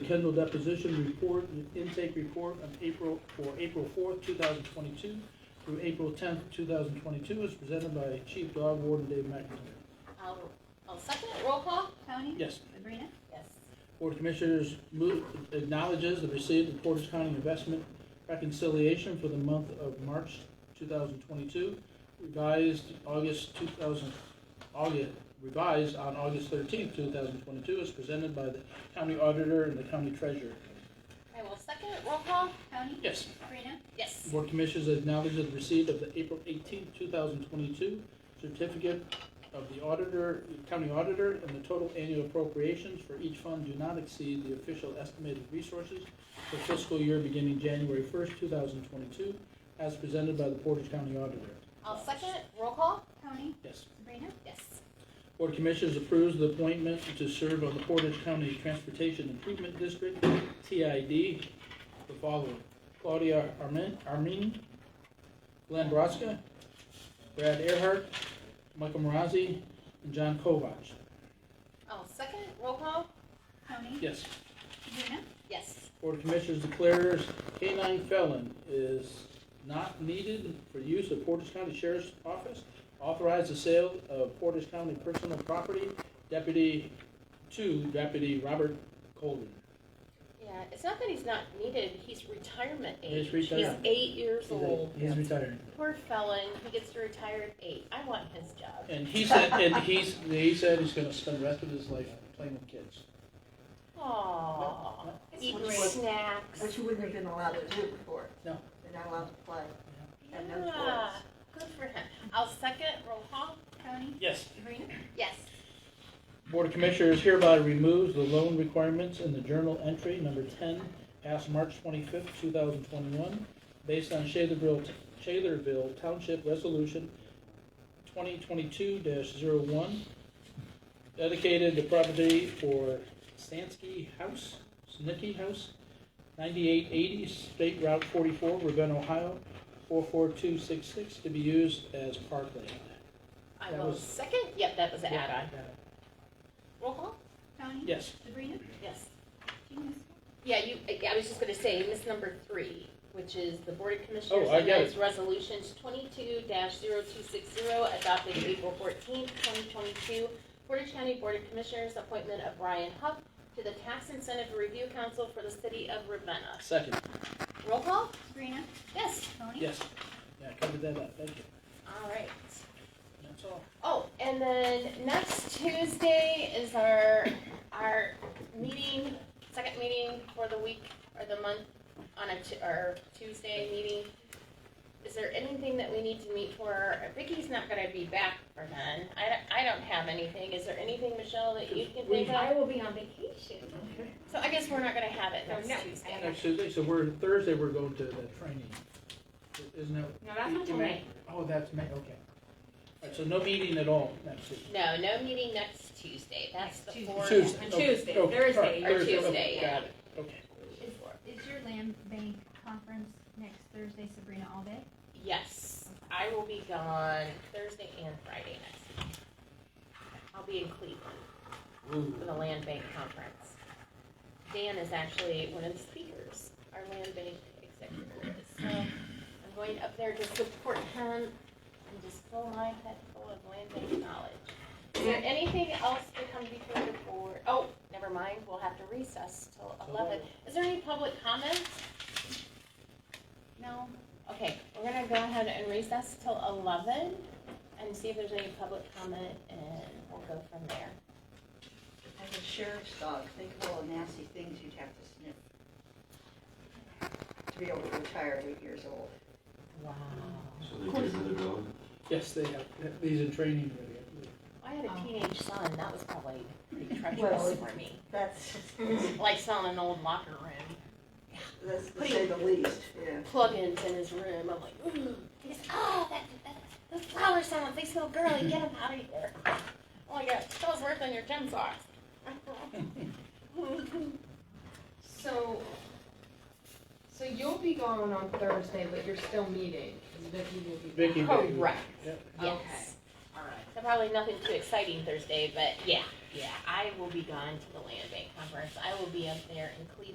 Superintendent Deposition Report, and Intake Report of April, for April fourth, two thousand twenty-two through April tenth, two thousand twenty-two, is presented by Chief Dog Warden Dave McIntyre. I'll, I'll second it, roll call? Tony? Yes. Sabrina? Yes. Board of Commissioners move, acknowledges the receipt of Portage County Investment Reconciliation for the month of March 2022, revised August 2000, August, revised on August 13th, 2022, as presented by the county auditor and the county treasurer. I will second it, roll call? Tony? Yes. Sabrina? Yes. Board of Commissioners acknowledges the receipt of the April 18th, 2022 certificate of the auditor, county auditor, and the total annual appropriations for each fund do not exceed the official estimated resources for fiscal year beginning January 1st, 2022, as presented by the Portage County Auditor. I'll second it, roll call? Tony? Yes. Sabrina? Yes. Board of Commissioners approves the appointment to serve on the Portage County Transportation Improvement District, TID, the following: Claudia Armin, Armin, Glenn Broska, Brad Earhart, Michael Marazzi, and John Kovach. I'll second it, roll call? Tony? Yes. Sabrina? Yes. Board of Commissioners declares K-9 felon is not needed for use of Portage County Sheriff's Office. Authorize the sale of Portage County personal property, Deputy, to Deputy Robert Colden. Yeah, it's not that he's not needed, he's retirement He's age. retired. eight years old. He's retiring. Poor felon, he gets to retire at eight. I want his job. And he said, and he's, he said he's gonna spend the rest of his life playing with kids. Aw, eating Which was- snacks. Which you wouldn't have been allowed to do before. No. They're not allowed to play. and no Yeah, good for him. I'll second it, roll call? Tony? Yes. Sabrina? Yes. Board of Commissioners hereby removes the loan requirements in the journal entry number ten, passed March twenty-fifth, two thousand twenty-one, based on Shalerville, Shalerville Township Resolution twenty twenty-two one dedicated to property for Stansky House, Snicky House, ninety-eight eighty, State Route forty-four, Ravenna, Ohio, four-four-two-six-six, to be used as parkland. I That will was- second, yep, that was the add-on. Roll call? Tony? Yes. Sabrina? Yes. Did you miss Yeah, you, I I was just gonna say, you missed number three, which is the Board of Oh, Commissioners I got amends resolutions twenty-two 260 adopted April fourteenth, twenty twenty-two. Portage County Board of Commissioners appointment of Brian Huff to the Tax Incentive Review Council for the City of Ravenna. Second. Roll call? Sabrina? Yes. Tony? Yes. Yeah, I covered that up, thank you. All right. That's all. Oh, and then next Tuesday is our, our meeting, second meeting for the week or the month on a, Tu- our Tuesday meeting. Is there anything that we need to meet for? Vicky's not gonna be back for then. I don't, I don't have anything. Is there anything, Michelle, that you can think of? I will be on vacation. Okay. So I guess we're not gonna have it next No, no. Tuesday. Next Tuesday, so we're, Thursday, we're going to the training. Isn't that? No, that's not till May. Oh, that's May, okay. All right, so no meeting at all next Tuesday. No, no meeting next Tuesday, that's the Tuesday. fourth. Tuesday. on okay, Tuesday, okay, all right, Thursday, or Thursday, okay, Tuesday, yeah. Got it, okay. Is, is your land bank conference next Thursday, Sabrina, all day? Yes, I will be gone Thursday and Friday next week. I'll be in Cleveland Ooh, for the Land Bank Conference. Dan is actually one of the speakers, our Land Bank executive is, so I'm going up there to support him and just fill my head full of Land Bank knowledge. Is there anything else to come before the board? Oh, never mind, we'll have to recess till eleven. Is there any public comments? No. Okay, we're gonna go ahead and recess till eleven and see if there's any public comment and we'll go from there. As a sheriff's dog, think of all the nasty things you'd have to sniff to be able to retire at eight years old. Wow. So they get another dog? Yes, they have, these in training already. I had a teenage son, that was probably pretty Well, treacherous for me, That's, like selling an old locker room, that's to say the least, yeah. plugins in his room, I'm like, ooh, he's, oh, that, that, those flowers sound like they smell girly, get them out of here. Oh my God, that was worse than your gym socks. So, so you'll be gone on Thursday, but you're still meeting, because Vicky will be. Vicky, Vicky. Correct, Yep. yes. All right. So probably nothing too exciting Thursday, but yeah, Yeah, I will be gone to the land bank conference. I will be up there in Cleveland.